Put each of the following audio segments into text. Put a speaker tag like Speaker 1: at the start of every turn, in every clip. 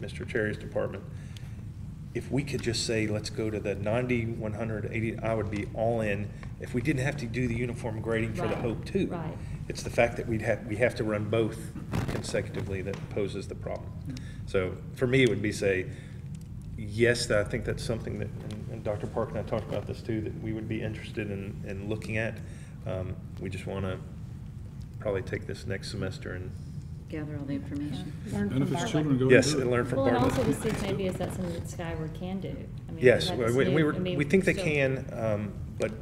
Speaker 1: Mr. Cherry's department, if we could just say, let's go to the 90, 100, 80, I would be all in, if we didn't have to do the uniform grading for the
Speaker 2: Right,
Speaker 1: Hope too.
Speaker 2: right.
Speaker 1: It's the fact that we'd have, we have to run both consecutively that poses the problem.
Speaker 2: Mm-hmm.
Speaker 1: So for me, it would be say, yes, that I think that's something that, and- and Dr. Park and I talked about this too, that we would be interested in, in looking at. Um, We just want to probably take this next semester and,
Speaker 3: gather all the information.
Speaker 4: Learn from
Speaker 5: Benefits
Speaker 4: Bartlett.
Speaker 5: children go
Speaker 1: yes,
Speaker 5: and do
Speaker 1: and
Speaker 5: it.
Speaker 1: learn from
Speaker 2: Well, and also
Speaker 1: Bartlett.
Speaker 2: we see maybe is that something that Skyward can do. I mean,
Speaker 1: Yes,
Speaker 2: that's
Speaker 1: we, we- we
Speaker 2: new.
Speaker 1: were,
Speaker 2: I mean,
Speaker 1: we think they
Speaker 2: so-
Speaker 1: can, um, but.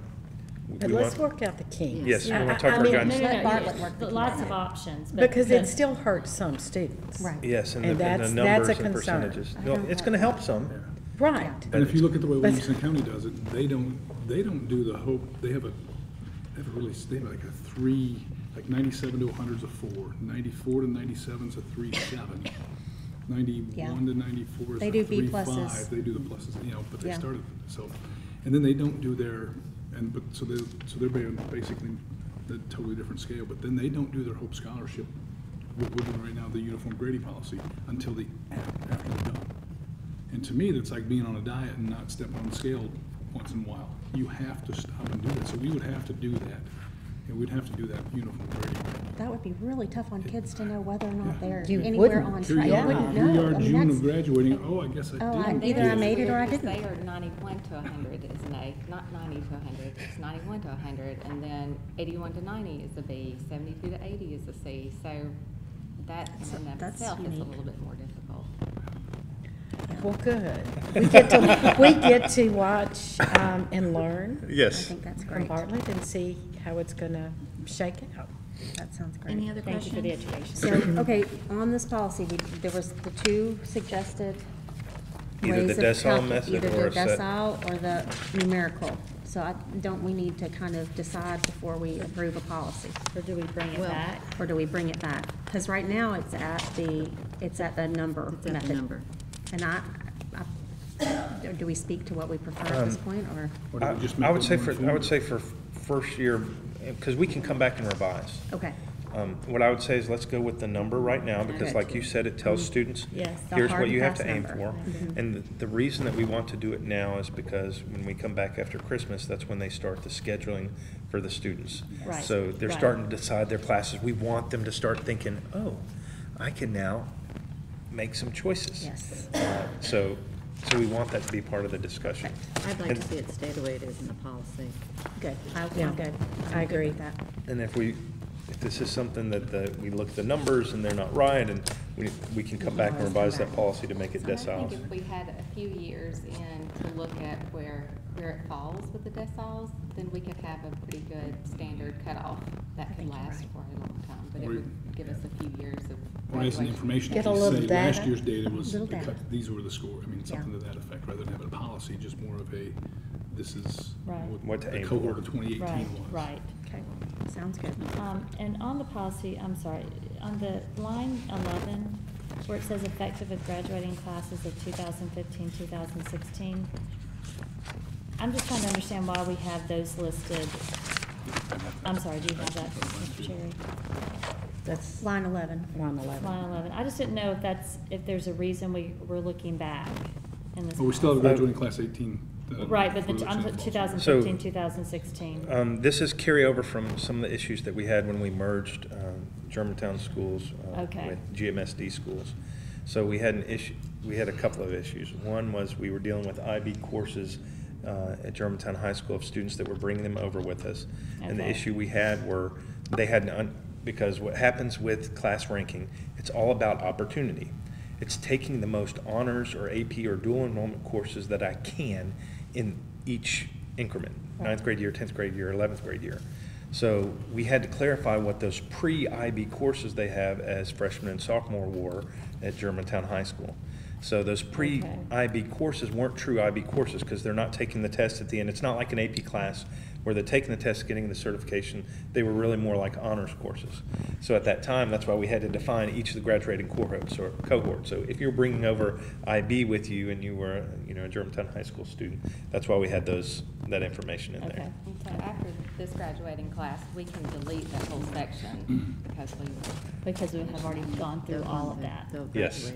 Speaker 1: we
Speaker 4: But let's
Speaker 1: want-
Speaker 4: work out the kinks.
Speaker 1: Yes, we
Speaker 4: I-
Speaker 1: wanna
Speaker 4: I-
Speaker 1: talk
Speaker 4: I
Speaker 1: our
Speaker 4: mean,
Speaker 2: No,
Speaker 1: guns.
Speaker 2: no, no,
Speaker 4: Let Bartlett
Speaker 2: yes,
Speaker 4: work the
Speaker 2: Lots of
Speaker 4: kinks.
Speaker 2: options, but.
Speaker 4: Because it
Speaker 2: but-
Speaker 4: still hurts some students.
Speaker 6: Right.
Speaker 1: Yes, and the,
Speaker 4: And
Speaker 1: and the
Speaker 4: that's- that's
Speaker 1: numbers
Speaker 4: a
Speaker 1: and
Speaker 4: concern.
Speaker 1: percentages.
Speaker 6: I
Speaker 1: No,
Speaker 6: don't
Speaker 1: It's
Speaker 6: want-
Speaker 1: going to help some.
Speaker 4: Right.
Speaker 1: but
Speaker 5: And if you look at the way
Speaker 4: But-
Speaker 5: Williamson County does it, they don't, they don't do the hope, they have a, they have a really, they have like a three, like ninety-seven to hundred's a four, ninety-four to ninety-seven's a three seven. Ninety-one to ninety-four is
Speaker 6: They
Speaker 5: a
Speaker 6: do B
Speaker 5: three
Speaker 6: pluses.
Speaker 5: five, they do the pluses, you know, but they
Speaker 6: Yeah.
Speaker 5: started, so. And then they don't do their, and, but, so they, so they're being basically a totally different scale, but then they don't do their Hope Scholarship, what we're doing right now, the uniform grading policy, until the, after they're done. And to me, that's like being on a diet and not stepping on the scale once in a while. You have to stop and do that. So we would have to do that. And we'd have to do that uniform grading.
Speaker 6: That would be really tough on kids to know whether or not they're
Speaker 4: You
Speaker 6: anywhere
Speaker 4: wouldn't.
Speaker 6: on
Speaker 4: That's
Speaker 5: Here
Speaker 6: track.
Speaker 5: you
Speaker 6: They
Speaker 5: are,
Speaker 6: wouldn't
Speaker 5: here you
Speaker 6: know.
Speaker 5: are,
Speaker 6: I mean,
Speaker 5: June
Speaker 6: that's-
Speaker 5: of graduating, oh, I guess I
Speaker 6: Oh, I-
Speaker 5: did.
Speaker 6: either I made it or I
Speaker 7: Because
Speaker 6: didn't.
Speaker 7: They are ninety-one to hundred is an A, not ninety to hundred, it's ninety-one to hundred, and then eighty-one to ninety is a B, seventy-two to eighty is a C, so that
Speaker 6: That's-
Speaker 7: in and of
Speaker 6: that's
Speaker 7: itself is a
Speaker 6: unique.
Speaker 7: little bit more difficult.
Speaker 4: Well, good. We get to, we get to watch um, and learn
Speaker 6: I
Speaker 1: Yes.
Speaker 6: think that's
Speaker 4: from
Speaker 6: great.
Speaker 4: Bartlett and see how it's going to shake out.
Speaker 6: That sounds great.
Speaker 3: Any other
Speaker 2: Thank you for the
Speaker 3: questions?
Speaker 2: education.
Speaker 3: So, okay, on this policy, we, there was the two suggested
Speaker 1: Either the
Speaker 3: ways of
Speaker 1: decile
Speaker 3: calcu-
Speaker 1: method
Speaker 3: either
Speaker 1: or
Speaker 3: the
Speaker 1: a set.
Speaker 3: decile or the numerical. So I, don't we need to kind of decide before we approve a policy?
Speaker 2: Or do we bring it
Speaker 3: Well,
Speaker 2: back?
Speaker 3: Or do we bring it back? Because right now, it's at the, it's at the number
Speaker 2: It's
Speaker 3: method.
Speaker 2: at the number.
Speaker 3: And I, I, do we speak to what we prefer at
Speaker 1: Um,
Speaker 3: this point, or?
Speaker 5: Or did
Speaker 1: I
Speaker 5: we just
Speaker 1: I
Speaker 5: make
Speaker 1: would
Speaker 5: it
Speaker 1: say
Speaker 5: more
Speaker 1: for, I
Speaker 5: informative?
Speaker 1: would say for first year, because we can come back and revise.
Speaker 3: Okay.
Speaker 1: Um, What I would say is let's go with the number right now, because
Speaker 3: Okay. Mm-hmm.
Speaker 1: like you said, it tells students,
Speaker 2: Yes, the
Speaker 1: here's
Speaker 3: hard
Speaker 1: what
Speaker 3: and
Speaker 1: you have to
Speaker 3: fast
Speaker 1: aim
Speaker 3: number. Mm-hmm.
Speaker 1: for. And the- the reason that we want to do it now is because when we come back after Christmas, that's when they start the scheduling for the students.
Speaker 2: Right,
Speaker 1: So they're
Speaker 2: right.
Speaker 1: starting to decide their classes. We want them to start thinking, oh, I can now make some choices.
Speaker 3: Yes.
Speaker 1: Uh, So, so we want that to be part of the discussion.
Speaker 3: I'd
Speaker 1: like to see
Speaker 3: it stay the way it is in the policy. Good. I- I'm
Speaker 4: Yeah,
Speaker 3: good.
Speaker 4: I
Speaker 3: I'm good
Speaker 4: agree.
Speaker 3: with that.
Speaker 1: And if we, if this is something that the, we look at the numbers and they're not right, and we, we can come back and revise that policy to make it
Speaker 7: And I think
Speaker 1: deciles.
Speaker 7: if we had a few years in to look at where, where it falls with the deciles, then we could have a pretty good standard cutoff that could last for a long time, but it
Speaker 5: Or-
Speaker 7: would give us a few years of.
Speaker 5: Or as an
Speaker 7: evaluation.
Speaker 5: information,
Speaker 4: Get a
Speaker 5: to
Speaker 4: little
Speaker 5: say, last
Speaker 4: data.
Speaker 5: year's data was,
Speaker 3: Little
Speaker 5: the
Speaker 3: data.
Speaker 5: cut- these were the score. I mean,
Speaker 3: Yeah.
Speaker 5: something to that effect, rather than having a policy, just more of a, this is
Speaker 2: Right.
Speaker 1: What
Speaker 5: what
Speaker 1: to
Speaker 5: the
Speaker 1: aim
Speaker 5: cohort
Speaker 1: for.
Speaker 5: of twenty
Speaker 2: Right,
Speaker 5: eighteen was.
Speaker 2: right.
Speaker 3: Okay, sounds good.
Speaker 2: Um, and on the policy, I'm sorry, on the line eleven, where it says effective of graduating classes of 2015-2016, i I'm just trying to understand why we have those listed. I'm sorry, do you have that, Mr. Cherry?
Speaker 4: That's line
Speaker 3: Line 11.
Speaker 4: 11.
Speaker 2: Line eleven, I just didn't know if that's, if there's a reason we, we're looking back in this.
Speaker 5: But Oh, we still have
Speaker 2: policy.
Speaker 5: graduating class eighteen. uh,
Speaker 2: Right, but the,
Speaker 5: for
Speaker 2: I'm,
Speaker 5: example.
Speaker 2: 2015, 2016.
Speaker 1: So- Um, this is carryover from some of the issues that we had when we merged, um, Germantown schools uh,
Speaker 2: Okay.
Speaker 1: with GMSD schools. So we had an issue, we had a couple of issues. One was we were dealing with IB courses, uh, at Germantown High School of students that were bringing them over with us. And the
Speaker 2: Okay.
Speaker 1: issue we had were, they had, an un- because what happens with class ranking, it's all about opportunity. It's taking the most honors or AP or dual enrollment courses that I can in each increment, ninth grade year, tenth grade year, eleventh grade year. So we had to clarify what those pre-IB courses they have as freshman and sophomore were at Germantown High School. So those
Speaker 2: Okay.
Speaker 1: pre-IB courses weren't true IB courses because they're not taking the test at the end. It's not like an AP class where they're taking the test, getting the certification. They were really more like honors courses. So at that time, that's why we had to define each of the graduating cohorts or cohort. So if you're bringing over IB with you and you were, you know, a Germantown High School student, that's why we had those, that information in
Speaker 2: Okay.
Speaker 1: there.
Speaker 7: And so after this graduating class, we can delete that whole section because we,
Speaker 2: Because we have already gone through all of that.
Speaker 1: Yes.